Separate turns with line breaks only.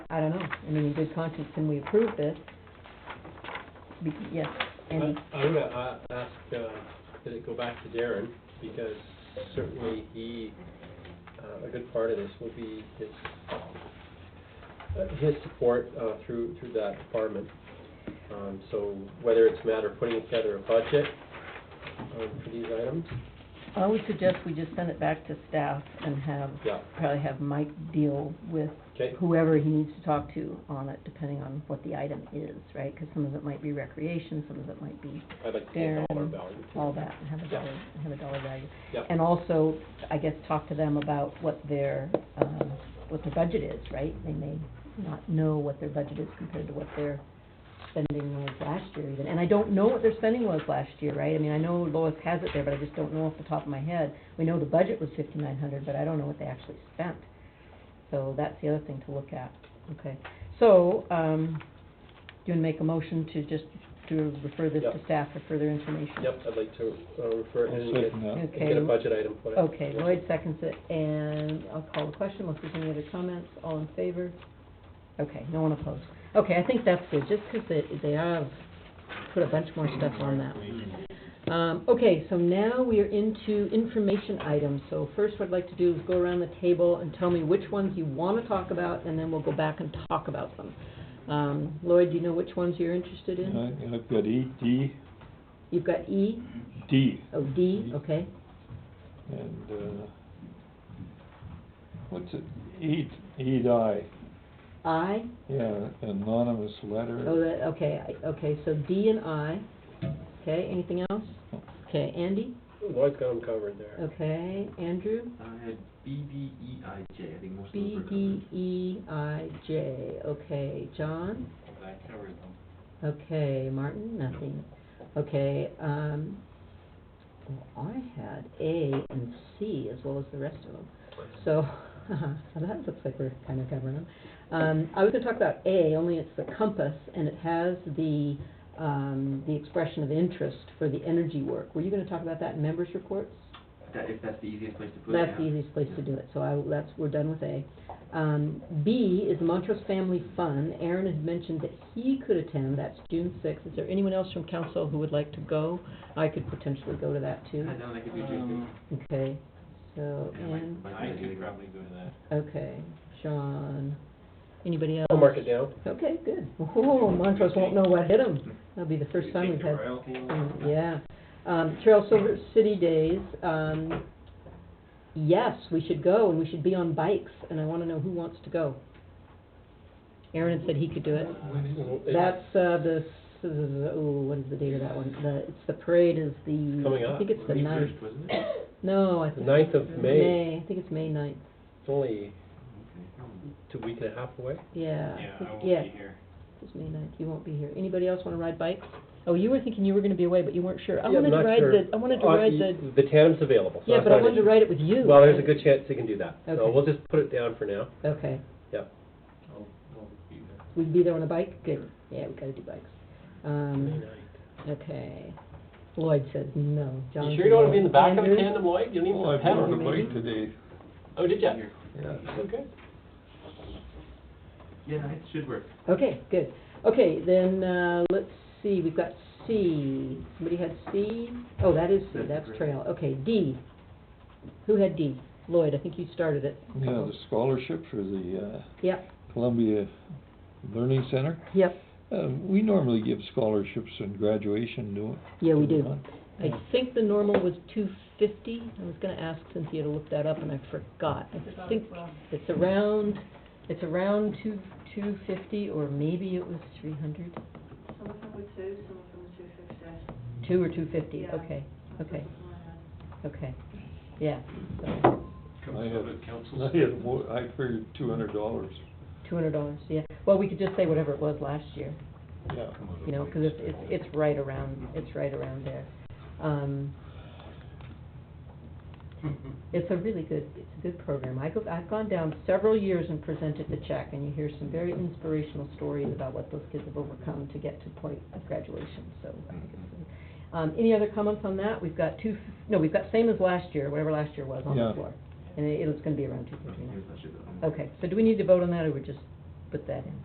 I don't know, I mean, in good conscience, can we approve this? Be- Yes,
I'm
and,
gonna uh, ask, uh, that it go back to Darren, because certainly he, uh, a good part of this will be his, uh, his support uh, through, through that department. Um, So whether it's a matter of putting together a budget um, for these items,
I would suggest we just send it back to staff and have,
yeah,
probably have Mike deal with
okay,
whoever he needs to talk to on it, depending on what the item is, right? Because some of it might be recreation, some of it might be
I'd like to get all our
Darren,
value. too.
all that, and have a
Yeah.
dollar, have a dollar value.
Yeah.
And also, I guess, talk to them about what their, um, what their budget is, right? They may not know what their budget is compared to what their spending was last year even. And I don't know what their spending was last year, right? I mean, I know Lois has it there, but I just don't know off the top of my head. We know the budget was fifty-nine hundred, but I don't know what they actually spent. So that's the other thing to look at, okay? So, um, do you wanna make a motion to just, to refer this to
Yep.
staff for further information?
Yep, I'd like to uh, refer it and
I'll
get,
second that.
and get a
Okay,
budget item for it.
okay, Lloyd seconds it, and I'll call the question, unless there's any other comments, all in favor? Okay, no one opposed. Okay, I think that's good, just 'cause they, they have put a bunch more stuff on that one. Um, okay, so now we are into information items, so first what I'd like to do is go around the table and tell me which ones you wanna talk about, and then we'll go back and talk about them. Um, Lloyd, do you know which ones you're interested in?
I- I've got E, D,
You've got E,
D,
oh, D, okay,
and, uh, what's it, E, E, I,
I,
yeah, anonymous
Oh,
letter.
that, okay, I- okay, so D and I, okay, anything else? Okay, Andy,
Lloyd's got 'em covered there.
okay, Andrew,
I had B B E I J, I think most of
B,
them
D, E, I, J, okay, John,
were covered. I covered them.
okay, Martin, nothing, okay, um, well, I had A and C as well as the rest of them, so, so that looks like we're kind of covering them. Um, I was gonna talk about A, only it's the compass, and it has the, um, the expression of interest for the energy work. Were you gonna talk about that in members' reports?
That, if that's the easiest place to put it,
That's the
yeah.
easiest place to do it, so I, that's, we're done with A. Um, B is Montrose Family Fun. Aaron had mentioned that he could attend, that's June sixth. Is there anyone else from council who would like to go? I could potentially go to that too.
I don't like it, we do
Um,
Okay, so,
Yeah, like-
and,
like
I
the
could
other-
probably go to that.
okay, Sean, anybody else?
I'll mark it down.
Okay, good. Oh, Montrose won't know what hit him. That'll be the first time we've had Mm, Yeah. Um, Trail Silver City Days, um, yes, we should go, and we should be on bikes, and I wanna know who wants to go. Aaron had said he could do it.
It's
That's, uh, the, s- ooh, what is the date of that one? The, it's, the parade is the,
Coming
I
up.
think it's the
May
ninth.
first, wasn't it?
No, I
The
think.
ninth of May,
I think it's May ninth,
it's only
Okay.
two week and a half away.
yeah. I
Yeah,
think-
I won't
Uh, yeah,
be here.
It's May ninth, you won't be here. Anybody else wanna ride bikes? Oh, you were thinking you were gonna be away, but you weren't sure. I
Yeah, I'm
wanted to
not
ride
sure.
the, I wanted to
Uh,
ride
y-
the,
The tandem's available, so
yeah,
that's
but I
not an
wanted to
issue.
ride it with you.
Well, there's a good chance they can do that, so
Okay.
we'll just put it down for now.
Okay,
I'll, I'll be there.
we'd be there on a bike, good, yeah, we gotta do bikes. Um, okay, Lloyd says no, John
You
says
sure you don't wanna be in the back of a
Andrew?
tandem, Lloyd? You don't
Oh, I
even have
bought a
one.
bike today,
Oh, did ya?
yeah.
Okay.
Yeah, it should work.
Okay, good, okay, then, uh, let's see, we've got C, somebody had C? Oh, that is C,
That's
that's
great.
trail, okay, D. Who had D? Lloyd, I think you started it.
Yeah, the scholarship for the,
Yep,
uh, Columbia Learning Center.
yep,
Uh, we normally give scholarships in graduation, do
yeah, we
do we
do.
not?
I think the normal was two fifty, I was gonna ask Cynthia to look that up, and I forgot. I think it's around, it's around two, two fifty, or maybe it was three hundred,
Some of them were two, some of them were two fifty.
two or two fifty,
Yeah.
okay, okay,
Yeah.
okay, yeah, so,
I have-
Council, council.
I had more, I figured two hundred dollars,
two hundred dollars, yeah. Well, we could just say whatever it was last year,
yeah.
you know, 'cause it's, it's, it's right around, it's right around there. Um, It's a really good, it's a good program. I go, I've gone down several years and presented the check, and you hear some very inspirational stories about what those kids have overcome to get to the point of graduation, so. I think it's- Um, any other comments on that? We've got two, no, we've got same as last year, whatever last year was on the
Yeah.
floor. And it, it's gonna be around two fifty now.
Here's that should go.
Okay, so do we need to vote on that, or we just put that in.